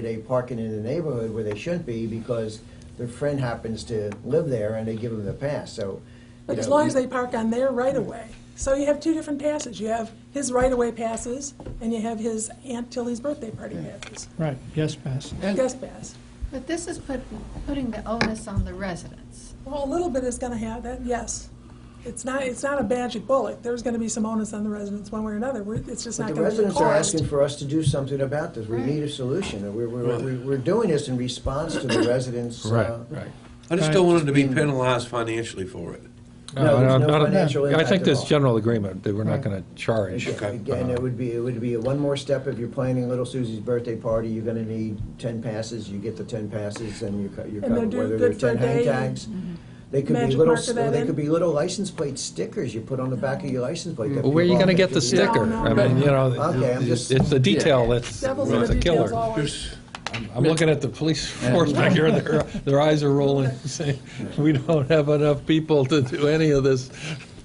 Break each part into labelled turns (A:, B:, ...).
A: they parking in the neighborhood where they shouldn't be because their friend happens to live there and they give them the pass, so.
B: But
A: you
B: as
A: know,
B: long as they park on their right-of-way. So you have two different passes. You have his right-of-way passes, and you have his Aunt Tilly's birthday party passes.
C: Right, yes, pass.
B: Guest pass.
D: But this is put, putting the onus on the residents.
B: Well, a little bit is gonna have that, yes. It's not, it's not a magic bullet. There's gonna be some onus on the residents one way or another. We're- It's just
A: But the
B: not gonna be
A: residents are
B: enforced.
A: asking for us to do something about this. We need a solution. And We're, we're, we're- we're doing this in response to the residents. uh,
E: Right.
F: I just don't want them to be penalized financially for it.
A: No, there's no
E: not-
A: financial
E: I
A: impact
E: think
A: at
E: there's
A: all.
E: general agreement that we're not going to charge.
F: Okay.
A: Again, it would be, it would be one more step if you're planning Little Susie's birthday party, you're gonna need ten passes, you get the ten passes, and you're, co- you're
B: And they're
A: covered,
B: do
A: whether they're
B: good for
A: ten
B: a
A: hang
B: day.
A: tags. They could be
B: Magic
A: little,
B: marker
A: s-
B: that
A: they
B: in.
A: could be little license plate stickers you put on the back of your license plate. that
E: Well, Where are you
A: people
E: going to get
A: often
E: the
A: do.
E: sticker?
B: No,
E: I
B: no,
E: mean, you know,
A: Okay, I'm just-
E: it's it's the detail that's
B: Devil's in
E: that's
B: the
E: a
B: details
E: killer.
B: always.
F: Just,
E: I'm looking at the police force back here, and their, their eyes are rolling, saying, we don't have enough people to do any of this.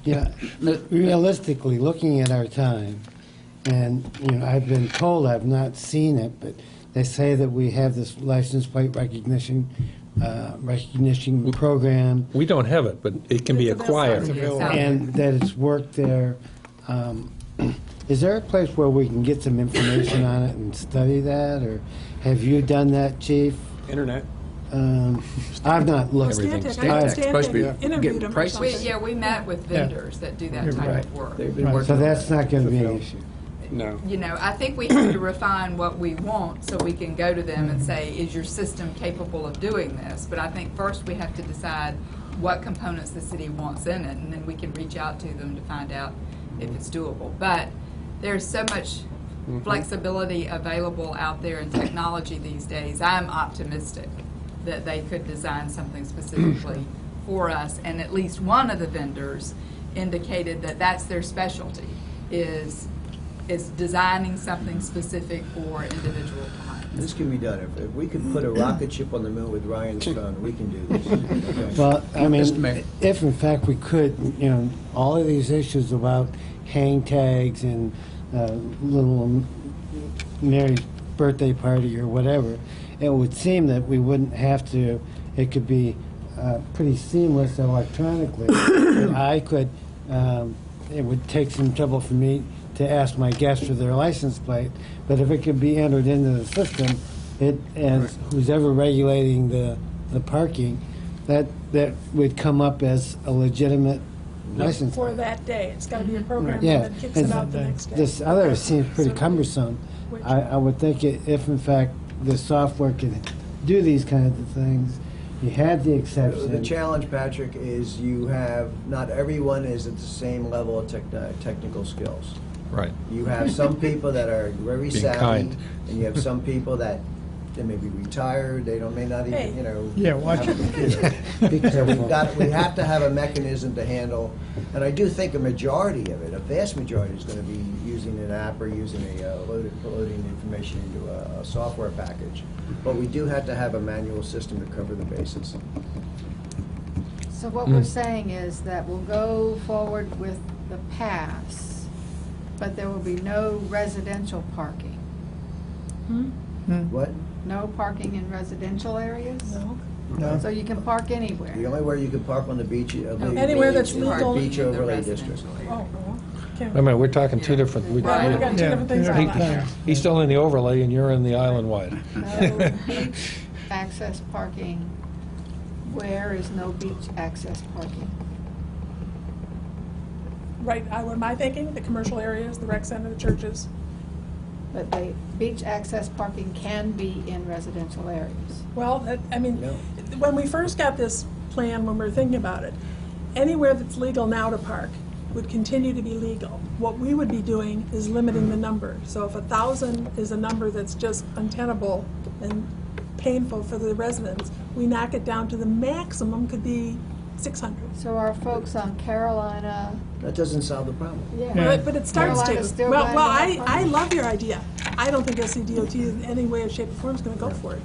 C: Yeah, but realistically, looking at our time, and, you know, I've been told, I've not seen it, but they say that we have this license plate recognition, uh, recognition program,
E: We don't have it, but it can be
B: It's a vessel.
E: acquired.
D: It's a real-
C: and that it's worked there. Um, Is there a place where we can get some information on it and study that, or have you done that, Chief?
G: Internet.
C: Um, I've not looked.
B: Stantec, I
C: I've-
B: think
G: supposed to be
B: Stantec interviewed
G: getting
B: him or
G: prices.
H: We,
B: something.
H: yeah, we met with vendors that do that type of work.
A: They've been
C: Right,
A: working
C: So
A: on
C: that's
A: that.
C: not going to be an issue.
G: No.
H: You know, I think we need to refine what we want so we can go to them and say, is your system capable of doing this? But I think first we have to decide what components the city wants in it, and then we can reach out to them to find out if it's doable. But there's so much flexibility available out there in technology these days. I'm optimistic that they could design something specifically for us, and at least one of the vendors indicated that that's their specialty, is is designing something specific for individual clients.
A: This can be done. If, if we could put a rocket ship on the moon with Ryan's phone, we can do this. Okay.
C: Well, I
G: Mr.
C: mean,
G: Mayor.
C: if in fact we could, you know, all of these issues about hang tags and uh, little Mary's birthday party or whatever, it would seem that we wouldn't have to, it could be uh, pretty seamless electronically. I could, um, it would take some trouble for me to ask my guests for their license plate, but if it could be entered into the system, it, as who's ever regulating the, the parking, that, that would come up as a legitimate license.
B: For that day. It's gotta be a program
C: Yeah,
B: that kicks it
C: it's-
B: out the next day.
C: This other seems pretty
B: So-
C: cumbersome.
B: Which-
C: I, I would think i- if in fact the software can do these kinds of things, you had the
A: The
C: exception.
A: challenge, Patrick, is you have, not everyone is at the same level of techni- technical skills.
E: Right.
A: You have some people that are very
E: Being
A: savvy,
E: kind.
A: and you have some people that, they may be retired, they don't, may not
B: Hey.
A: even, you know.
C: Yeah, watch
A: have a computer.
C: Be
A: So we've
C: careful.
A: got, we have to have a mechanism to handle, and I do think a majority of it, a vast majority is gonna be using an app or using a uh, loaded, loading information into a, a software package. But we do have to have a manual system to cover the bases.
D: So what we're saying is that we'll go forward with the pass, but there will be no residential parking.
A: What?
D: No parking in residential areas?
B: No?
A: No.
D: So you can park
A: The
D: anywhere.
A: only way you can park on the beach. uh,
H: No,
A: the
B: Anywhere
A: beach
B: that's
A: is
B: legal.
A: Beach
H: In the
A: overlay
H: residential
A: district.
H: area.
B: Oh, well, can't-
E: I mean, we're talking two different, we-
B: Right, we've got two
E: he-
B: different things
C: Yeah.
B: going on here.
E: he's still in the overlay and you're in the island-wide.
D: No
B: Oh.
D: beach access parking. Where is no beach access parking?
B: Right, I, what am I thinking? The commercial areas, the rec center, the churches.
D: But they, beach access parking can be in residential areas.
B: Well, that- I mean,
A: No.
B: when we first got this plan, when we were thinking about it, anywhere that's legal now to park would continue to be legal. What we would be doing is limiting the number. So if a thousand is a number that's just untenable and painful for the residents, we knock it down to the maximum could be six hundred.
D: So our folks on Carolina,
A: That doesn't solve the problem.
B: But,
D: Hmm.
B: but it starts
D: Carolina's
B: to,
D: still
B: well,
D: going
B: well,
D: on
B: I,
D: for
B: I
D: it.
B: love your idea. I don't think E SCDOT in any way, shape, or form is gonna go for it.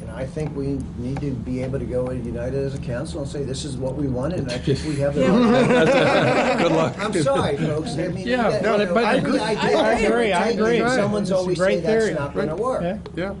A: And I think we need to be able to go united as a council and say, this is what we want, and I think we have. the-
E: Good luck.
A: I'm sorry, folks. I mean, you
E: Yeah,
A: got-
E: no,
A: you know,
E: but-
A: I agree.
B: I agree,
A: Someone's
E: It's a
A: always saying
E: great
A: that's
E: theory.
A: not going to work.
G: Yeah.